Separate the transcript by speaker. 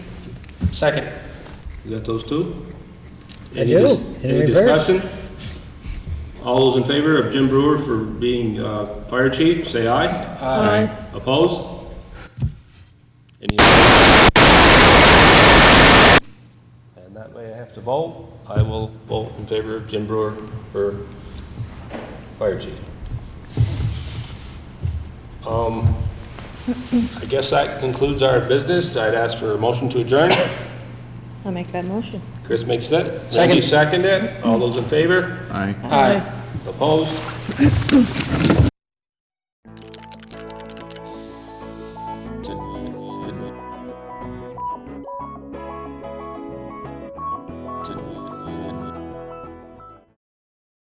Speaker 1: Second.
Speaker 2: You got those two?
Speaker 3: I
Speaker 2: Any
Speaker 3: do,
Speaker 2: dis-
Speaker 3: in
Speaker 2: Any
Speaker 3: reverse.
Speaker 2: discussion? All those in favor of Jim Brewer for being uh, fire chief, say aye.
Speaker 3: Aye.
Speaker 2: Opposed? Any? And that way I have to vote. I will vote in favor of Jim Brewer for fire chief. Um, I guess that concludes our business. I'd ask for a motion to adjourn.
Speaker 4: I'll make that motion.
Speaker 2: Chris makes it.
Speaker 1: Second.
Speaker 2: Randy seconded. All those in favor?
Speaker 5: Aye.
Speaker 1: Aye.
Speaker 2: Opposed?